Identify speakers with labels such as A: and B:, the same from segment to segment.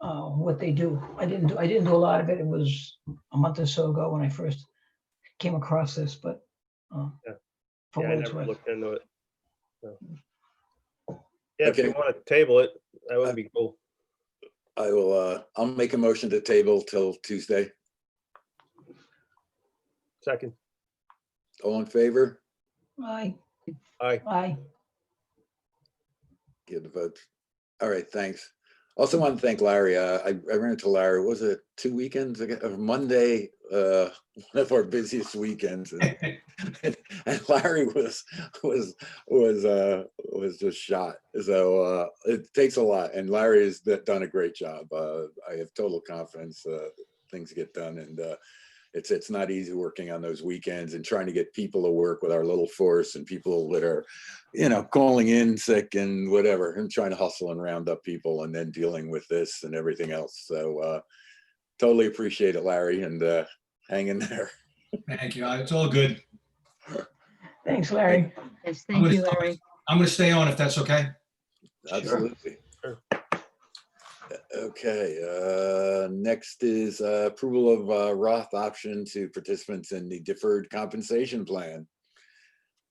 A: uh, what they do. I didn't, do I didn't do a lot of it. It was a month or so ago when I first came across this, but uh,
B: Yeah.
A: for
B: Yeah,
A: what
B: I
A: it's
B: never
A: worth.
B: looked into it. so. Yeah, if you
C: Okay.
B: want to table it, that would be cool.
C: I will, uh, I'll make a motion to table till Tuesday.
B: Second,
C: All in favor?
A: Aye.
B: Aye.
A: Aye.
C: Give the vote. All right, thanks. Also want to thank Larry. Uh, I, I ran into Larry, was it two weekends ago, Uh, Monday, uh, one of our busiest weekends. And and Larry was, was, was, uh, was just shot. So, uh, it takes a lot and Larry has d- done a great job. Uh, I have total confidence, uh, things get done and, uh, it's, it's not easy working on those weekends and trying to get people to work with our little force and people that are you know, calling in sick and whatever, and trying to hustle and round up people and then dealing with this and everything else. So uh totally appreciate it, Larry, and uh hang in there.
D: Thank you. It's all good.
A: Thanks, Larry.
E: Yes,
D: I'm
E: thank you,
D: gonna-
E: Larry.
D: I'm going to stay on if that's okay.
C: Absolutely.
B: Sure.
C: Okay, uh next is uh approval of uh Roth option to participants in the deferred compensation plan.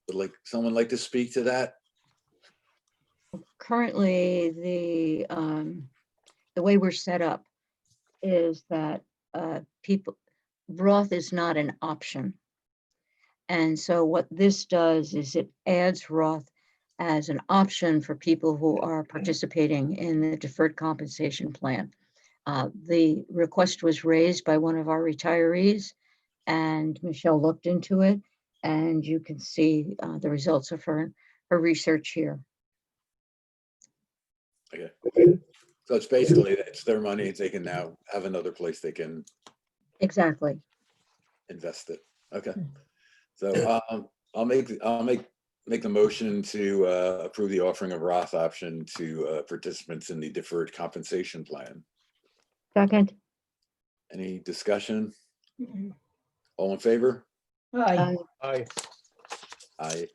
C: Would like, someone like to speak to that?
E: Currently, the, um, the way we're set up is that, uh, people, Roth is not an option. And so what this does is it adds Roth as an option for people who are participating in the deferred compensation plan. Uh, the request was raised by one of our retirees and Michelle looked into it and you can see, uh, the results of her, her research here.
C: So it's basically, it's their money, they can now have another place they can
E: Exactly.
C: invest it. Okay.
A: Hmm.
C: So um, I'll make, I'll make, make the motion to uh, approve the offering of Roth option to uh, participants in the deferred compensation plan.
E: Second,
C: Any discussion?
A: Mm,
C: All in favor?
A: Aye.
E: Aye.
B: aye,
C: Aye.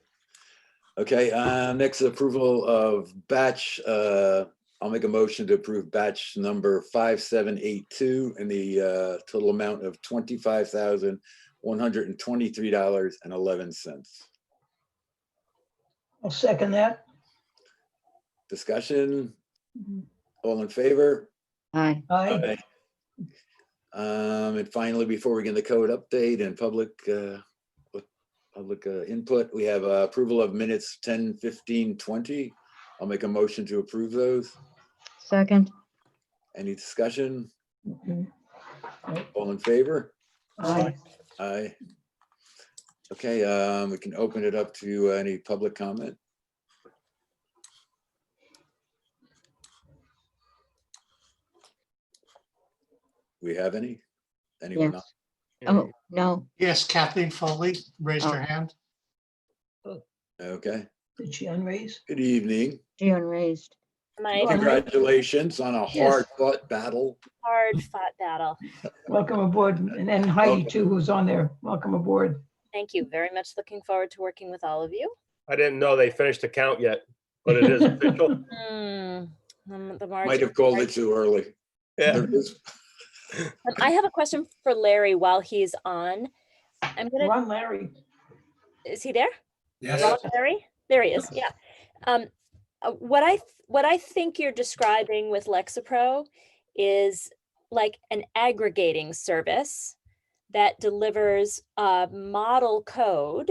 C: Okay, uh, next approval of batch, uh, I'll make a motion to approve batch number 5782 in the uh, total amount of $25,123.11.
A: I'll second that.
C: Discussion?
A: Mhm.
C: All in favor?
E: Aye.
A: Aye.
C: Um, and finally, before we get the code update and public, uh, with public uh, input, we have uh, approval of minutes 10, 15, 20. I'll make a motion to approve those.
E: Second,
C: Any discussion?
A: Mhm.
C: All in favor?
A: Aye.
C: Aye. Okay, um, we can open it up to uh, any public comment. We have any? Anyone?
E: yes. Oh, no,
F: Yes, Kathleen Foley raised her
E: Oh.
F: hand.
C: Okay,
A: Did she unraise?
C: good evening.
E: she unraised.
G: My
A: Well, Congrats.
C: Congratulations on a
A: Yes.
C: hard fought battle.
G: hard fought battle.
A: Welcome aboard. And then Heidi too, who's on there. Welcome aboard.
G: Thank you. Very much looking forward to working with all of you.
B: I didn't know they finished the count yet, but it is official.
G: Hmm, um, the
C: Might
G: margin.
C: have called it too early.
B: Yeah,
C: There is-
G: But I have a question for Larry while he's on. I'm gonna,
A: Ron Larry.
G: is he there?
D: Yes.
G: Hello, Larry? There he is, yeah. Um, uh, what I, th- what I think you're describing with Lexapro is like an aggregating service that delivers a model code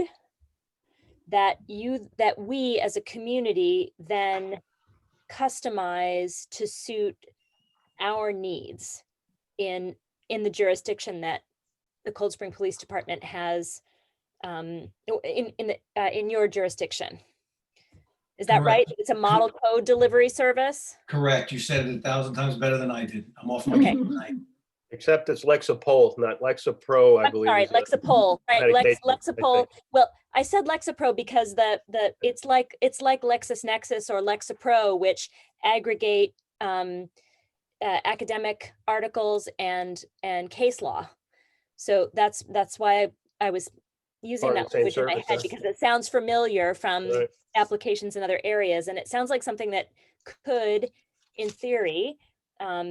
G: that you, that we as a community then customize to suit our needs in, in the jurisdiction that the Cold Spring Police Department has um, o- in, in, the- uh, in your jurisdiction. Is that right?
D: Correct.
G: It's a model code delivery service?
D: Correct. You said it a thousand times better than I did. I'm off. my
G: Okay.
D: game tonight.
B: except it's Lexapro, not Lexapro, I
G: I'm
B: believe.
G: sorry,
B: is the-
G: Lexapol, right, Lex,
B: medication, I think.
G: Lexapol. Well, I said Lexapro because the, the, it's like, it's like LexisNexis or Lexapro, which aggregate um, uh, academic articles and, and case law. So that's, that's why I- I was using
B: Part of
G: that
B: the same
G: language in my
B: service,
G: head
B: huh?
G: because it sounds familiar from
B: Right.
G: applications in other areas. And it sounds like something that could, in theory, um,